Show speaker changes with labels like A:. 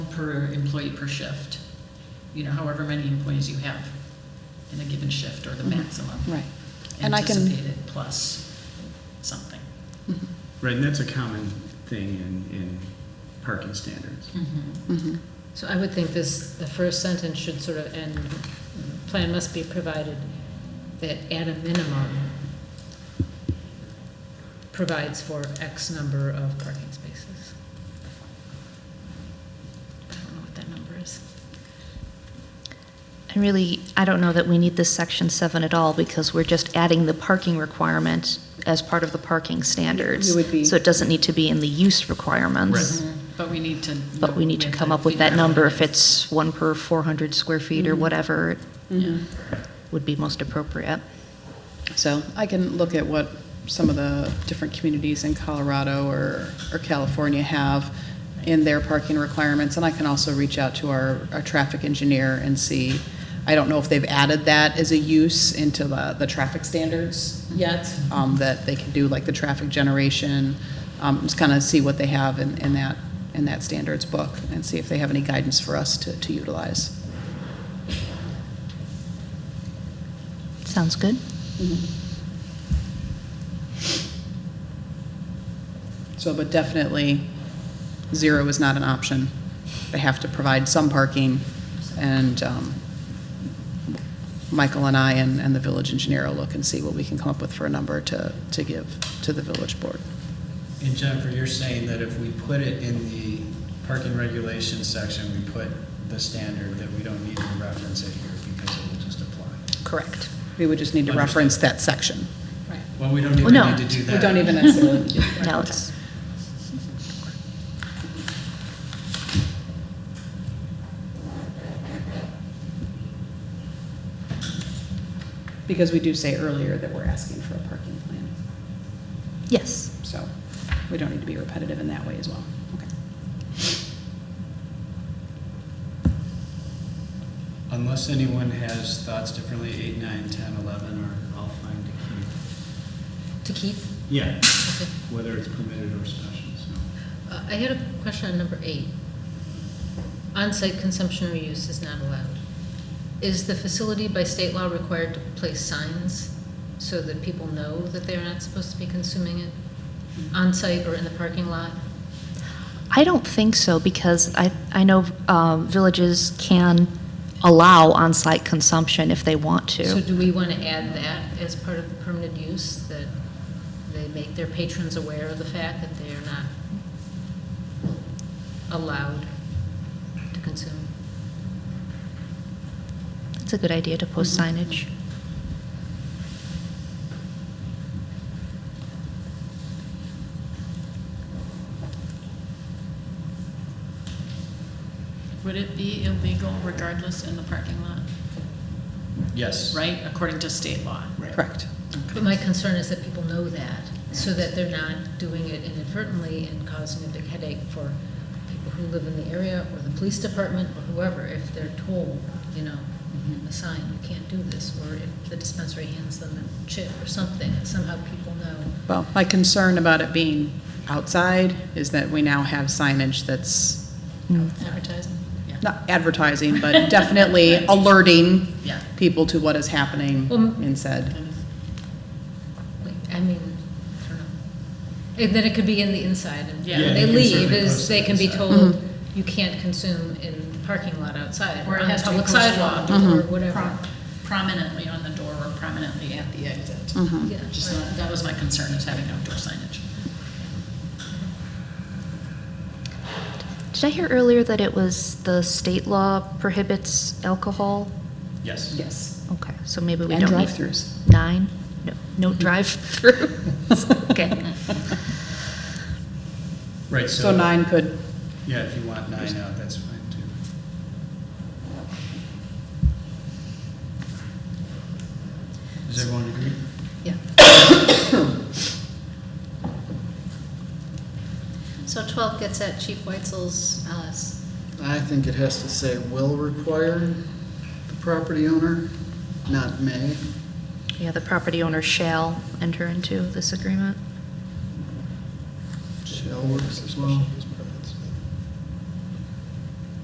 A: per employee per shift. You know, however many employees you have in a given shift or the
B: Mm-hmm.
A: maximum.
C: Right. And I can-
A: Anticipated plus something.
D: Right, and that's a common thing in, in parking standards.
B: Mm-hmm.
C: Mm-hmm.
E: So I would think this, the first sentence should sort of end, plan must be provided that at a minimum provides for X number of parking spaces. I don't know what that number is.
B: And really, I don't know that we need this section seven at all, because we're just adding the parking requirement as part of the parking standards.
C: It would be-
B: So it doesn't need to be in the use requirements.
A: But we need to.
B: But we need to come up with that number, if it's one per four hundred square feet or whatever, it would be most appropriate.
C: So I can look at what some of the different communities in Colorado or, or California have in their parking requirements, and I can also reach out to our, our traffic engineer and see. I don't know if they've added that as a use into the, the traffic standards yet, um, that they can do like the traffic generation, um, just kind of see what they have in, in that, in that standards book, and see if they have any guidance for us to, to utilize.
B: Sounds good?
C: So, but definitely, zero is not an option. They have to provide some parking, and um, Michael and I and and the village engineer will look and see what we can come up with for a number to, to give to the village board.
F: And Jennifer, you're saying that if we put it in the parking regulations section, we put the standard, that we don't need to reference it here because it will just apply?
C: Correct. We would just need to reference that section.
F: Well, we don't
B: Well,
F: even
B: no.
F: need to do
C: We
F: that.
C: don't even necessarily.
B: No, it's,
C: Because we do say earlier that we're asking for a parking plan,
B: yes.
C: so we don't need to be repetitive in that way as well. Okay.
F: Unless anyone has thoughts differently, eight, nine, ten, eleven, are all fine to keep.
E: To keep?
F: Yeah,
E: Okay.
F: whether it's permitted or special, so.
E: Uh, I had a question on number eight. On-site consumption or use is not allowed. Is the facility by state law required to place signs so that people know that they're not supposed to be consuming it on-site or in the parking lot?
B: I don't think so, because I, I know uh, villages can allow on-site consumption if they want to.
E: So do we want to add that as part of the permitted use, that they make their patrons aware of the fact that they are not allowed to consume?
B: It's a good idea to post signage.
A: Would it be illegal regardless in the parking lot,
F: Yes.
A: right, according to state law?
C: Correct.
E: But my concern is that people know that, so that they're not doing it inadvertently and causing a big headache for people who live in the area, or the police department, or whoever, if they're told, you know, a sign, you can't do this, or if the dispensary hands them a chip or something, and somehow people know.
C: Well, my concern about it being outside is that we now have signage that's
E: Advertising?
A: Yeah.
C: not advertising, but definitely alerting
A: Yeah.
C: people to what is happening
E: Well,
C: in said.
A: Kind of.
E: Like, I mean, I don't know. And then it could be in the inside, and
A: Yeah.
E: when
A: Yeah,
E: they
F: you can
E: leave,
F: certainly
E: is
F: post
E: they
F: it
E: can be
F: inside.
E: told, you can't consume in the parking lot outside,
A: Or
E: or
A: it
E: on
A: has
E: the
A: to be
E: public
A: posted
E: sidewalk,
A: on-
B: Mm-hmm.
E: or whatever.
A: Prom- Prominently on the door or prominently at the exit.
B: Mm-hmm.
E: Yeah,
A: Just,
E: right.
A: that was my concern, is having outdoor signage.
B: Did I hear earlier that it was the state law prohibits alcohol?
F: Yes.
C: Yes.
B: Okay, so maybe we
C: And
B: don't need.
C: drive-throughs.
B: Nine? No, no drive-through. Okay.
F: Right, so.
C: So nine could,
F: Yeah, if you want nine out, that's fine too. Does everyone agree?
E: Yeah. So 12 gets at Chief Weitzel's, uh, s-
G: I think it has to say will require the property owner, not may.
B: Yeah, the property owner shall enter into this agreement.
G: Shall works as well.